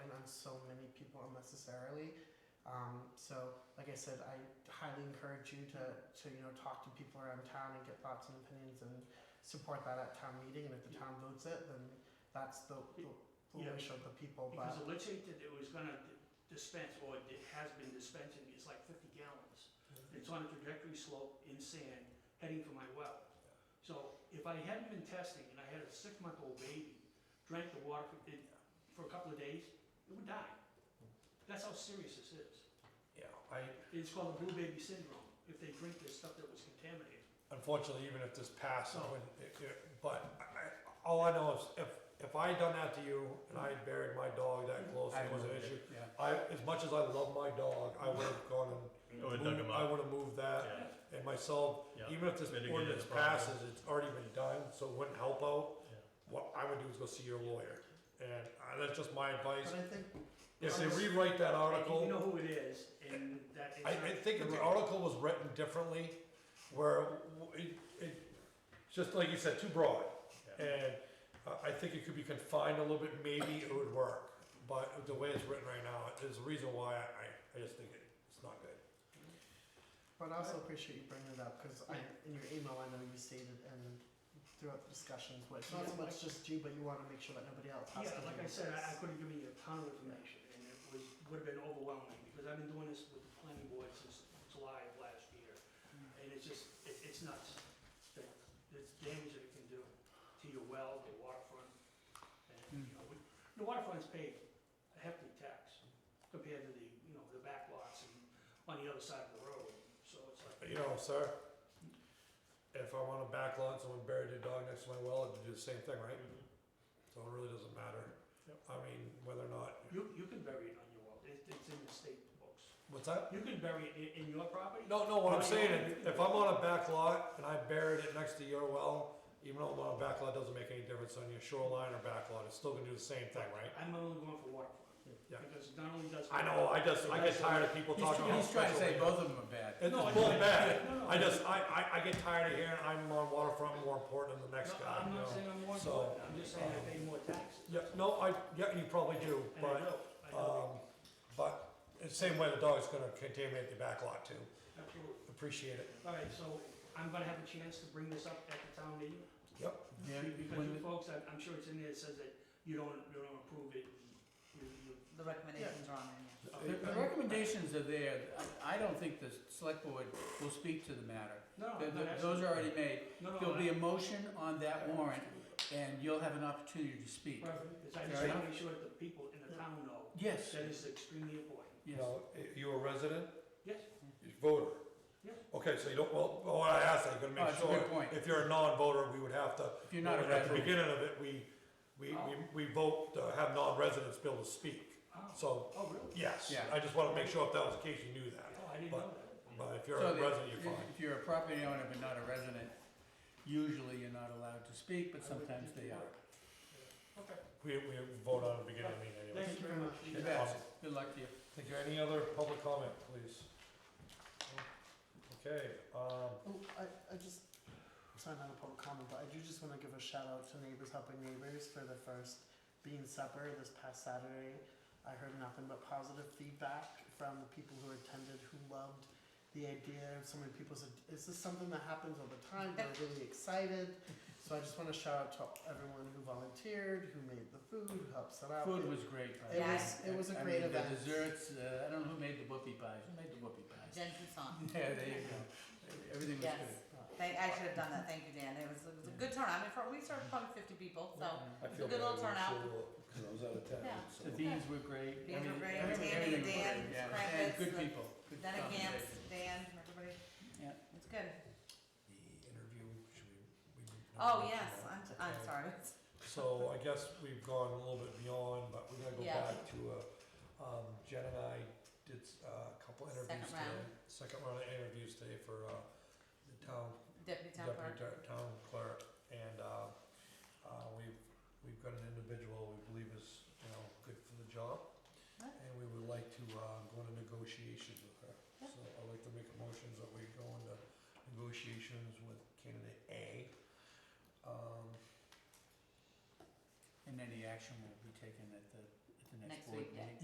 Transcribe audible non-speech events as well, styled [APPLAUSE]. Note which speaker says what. Speaker 1: necessarily. Um, so, like I said, I highly encourage you to, to you know talk to people around town and get thoughts and opinions and support that at town meeting. And if the town votes it, then that's the, the, the
Speaker 2: Yeah.
Speaker 1: wish of the people. But
Speaker 2: Because the leachate that it was gonna dispense, or it has been dispensing, is like fifty gallons. It's on a trajectory slope in sand, heading for my well. So if I hadn't been testing, and I had a six-month-old baby, drank the water for, it- for a couple of days, it would die. That's how serious this is.
Speaker 3: Yeah, I,
Speaker 2: It's called the blue baby syndrome, if they drink this stuff that was contaminated.
Speaker 3: unfortunately, even if this passed, I wouldn't, it- it- but I, I- all I know is if, if I had done that to you and I had buried my dog that close,
Speaker 4: I
Speaker 3: it was an
Speaker 4: would've-
Speaker 3: issue.
Speaker 4: yeah.
Speaker 3: I, as much as I love my dog, I would have gone and.
Speaker 5: I would've dug him
Speaker 3: moved- I would have moved that and myself,
Speaker 5: Yeah.
Speaker 3: even if this
Speaker 5: Mitigated the
Speaker 3: ordinance
Speaker 5: problem.
Speaker 3: passes, it's already been done, so it wouldn't help out.
Speaker 5: Yeah.
Speaker 3: What I would do is go see your lawyer. And I- that's just my advice.
Speaker 1: but I think
Speaker 3: If they rewrite that article.
Speaker 2: And you know who it is, and that. it's
Speaker 3: I, I
Speaker 2: not-
Speaker 3: think if the article was written differently, where w- it, it, just like you said, too broad.
Speaker 5: Yeah.
Speaker 3: And uh, I, I think it could be confined a little bit, maybe it would work. But the way it's written right now, there's a reason why I, I just think it- it's not good.
Speaker 1: But I also appreciate you bringing it up because I, in your email, I know you stated and throughout the discussions, but it's not so much just you, but you want to make sure that nobody else has
Speaker 2: Yeah,
Speaker 1: to
Speaker 2: like
Speaker 1: do
Speaker 2: I said, I
Speaker 1: this.
Speaker 2: could have given you a ton of information, and it was, would have been overwhelming, because I've been doing this with the planning board since July of last year, and it's just, it- it's nuts, the the damage that it can do to your well, the waterfront, and, you know, we- the waterfront's paid a hefty tax compared to the, you know, the back lots and on the other side of the road, so it's like.
Speaker 3: But you know, sir, if I want to back lot and someone buried their dog next to my well, I'd do the same thing, right? So it really doesn't matter.
Speaker 5: Yep.
Speaker 3: I mean, whether or not,
Speaker 2: You, you can bury it on your well, It- it's in the state books.
Speaker 3: what's that?
Speaker 2: You can bury it in, in your property.
Speaker 3: No, no, what
Speaker 2: Oh,
Speaker 3: I'm saying,
Speaker 2: yeah.
Speaker 3: is, if I'm on a back lot and I buried it next to your well, even though I'm on a back lot, it doesn't make any difference on your shoreline or back lot, it's still gonna do the same thing, right?
Speaker 2: I'm only going for waterfront.
Speaker 3: Yeah.
Speaker 2: Because not only does.
Speaker 3: I know, I just, I get tired of people
Speaker 4: He's,
Speaker 3: talking about.
Speaker 4: he's trying to say
Speaker 3: special-
Speaker 4: both of them are bad.
Speaker 3: It's
Speaker 2: No,
Speaker 3: both
Speaker 2: I- No,
Speaker 3: bad,
Speaker 2: no.
Speaker 3: I just, I, I, I get tired of hearing I'm on waterfront more important than the next
Speaker 2: No,
Speaker 3: guy,
Speaker 2: I'm
Speaker 3: you
Speaker 2: not
Speaker 3: know?
Speaker 2: saying I'm more
Speaker 3: So,
Speaker 2: important, I'm just saying I pay more taxes.
Speaker 3: Yeah, no, I, yeah, you probably do,
Speaker 2: And I
Speaker 3: but,
Speaker 2: know, I
Speaker 3: um,
Speaker 2: know,
Speaker 3: but, the same way the dog's gonna contaminate the back lot too,
Speaker 2: absolutely.
Speaker 3: appreciate it,
Speaker 2: All right, so I'm gonna have a chance to bring this up at the town meeting.
Speaker 3: yep,
Speaker 4: Yeah,
Speaker 2: Because
Speaker 4: when-
Speaker 2: you folks, I'm, I'm sure it's in there, it says that you don't, you don't approve it. You, you,
Speaker 6: The recommendations are on there, yeah.
Speaker 4: The the recommendations are there, I I don't think the select board will speak to the matter.
Speaker 2: no, no,
Speaker 4: Th- th-
Speaker 2: that's.
Speaker 4: Those are already made.
Speaker 2: No, no,
Speaker 4: There'll be
Speaker 2: no.
Speaker 4: a motion on that warrant, and you'll have an opportunity to speak.
Speaker 2: Perfect, 'cause I just
Speaker 4: Fair
Speaker 2: wanna
Speaker 4: enough.
Speaker 2: make sure that the people in the town know
Speaker 4: Yes, Oh,
Speaker 2: that is extremely important.
Speaker 3: you
Speaker 4: yes.
Speaker 3: know, you a resident?
Speaker 2: Yes,
Speaker 3: You're a voter?
Speaker 2: Yeah.
Speaker 3: Okay, so you don't, well, well, I asked, I'm gonna
Speaker 4: Oh,
Speaker 3: make
Speaker 4: it's a good
Speaker 3: sure,
Speaker 4: point.
Speaker 3: if you're a non-voter, we would have to.
Speaker 4: If you're not a
Speaker 3: At the
Speaker 4: resident. Oh.
Speaker 3: beginning of it, we, we, we, we vote to have non-residents be able to speak.
Speaker 2: Oh.
Speaker 3: So,
Speaker 2: oh, really?
Speaker 3: yes,
Speaker 4: Yeah.
Speaker 3: I just wanna make sure if that was the case, you knew that.
Speaker 2: Oh, I didn't
Speaker 3: But-
Speaker 2: know that.
Speaker 3: But if you're
Speaker 4: So
Speaker 3: a
Speaker 4: that-
Speaker 3: resident, you're fine.
Speaker 4: If you're a property owner but not a resident, usually you're not allowed to speak,
Speaker 2: I
Speaker 4: but
Speaker 2: wouldn't
Speaker 4: sometimes
Speaker 2: think
Speaker 4: they
Speaker 2: you
Speaker 4: are.
Speaker 2: were. Okay.
Speaker 3: We, we vote on the beginning of the meeting anyway.
Speaker 2: Thank you very much.
Speaker 4: You bet. Good luck to you.
Speaker 3: Thank you. Any other public comment, please? Okay, um,
Speaker 1: Oh, I, I just, it's not a public comment, but I do just want to give a shout out to Neighbors Helping Neighbors for their first Bean Supper this past Saturday. I heard nothing but positive feedback from the people who attended, who loved the idea. So many people said, is this something that happens all the time? They're
Speaker 6: [LAUGHS]
Speaker 1: really excited. So I just want to shout out to everyone who volunteered, who made the food, who helped set up.
Speaker 4: Food was great. by the
Speaker 1: It
Speaker 4: way.
Speaker 1: was- it was a
Speaker 4: I
Speaker 1: great
Speaker 4: mean,
Speaker 1: event.
Speaker 4: The desserts, uh, I don't know who made the whoopie pies. Who made the whoopie pies?
Speaker 6: Jen Toussaint.
Speaker 4: [LAUGHS] Yeah, there you go. Everything was
Speaker 6: Yes.
Speaker 4: good.
Speaker 6: Thank, I should have done that, thank you, Dan, it was, it was a good turnout, I mean, for- we served probably fifty people, so,
Speaker 3: I
Speaker 6: It's a
Speaker 3: feel
Speaker 6: good little
Speaker 3: bad. I'm
Speaker 6: turnout.
Speaker 3: sure- Cause I was out of
Speaker 6: Yeah.
Speaker 3: town, so.
Speaker 4: The beans were great.
Speaker 6: Beans were
Speaker 4: Everything-
Speaker 6: great.
Speaker 4: everything-
Speaker 6: Tandy,
Speaker 4: everything
Speaker 6: Dan,
Speaker 4: was great, yeah.
Speaker 6: Krampus,
Speaker 4: And good
Speaker 6: the-
Speaker 4: people. Good
Speaker 6: then again,
Speaker 4: combination.
Speaker 6: Dan, everybody,
Speaker 4: Yeah.
Speaker 6: it's good.
Speaker 3: the interview, should we? we-
Speaker 6: Oh, yes, I'm, I'm
Speaker 3: Okay.
Speaker 6: sorry,
Speaker 3: So I guess we've gone a little bit beyond, but we're gonna go
Speaker 6: Yeah.
Speaker 3: back to, uh, um, Jen and I did uh, a couple interviews
Speaker 6: Second
Speaker 3: today.
Speaker 6: round.
Speaker 3: Second round of interviews today for, uh, the town,
Speaker 6: deputy town
Speaker 3: deputy
Speaker 6: clerk.
Speaker 3: Tar- town clerk. And, uh, uh, we've, we've got an individual we believe is, you know, good for the job.
Speaker 6: Right.
Speaker 3: And we would like to, uh, go into negotiations with her.
Speaker 6: Yeah.
Speaker 3: So I'd like to make a motion that we go into negotiations with candidate A. Um,
Speaker 4: And any action will be taken at the, at the next
Speaker 6: Next
Speaker 4: board
Speaker 6: week,
Speaker 4: meeting.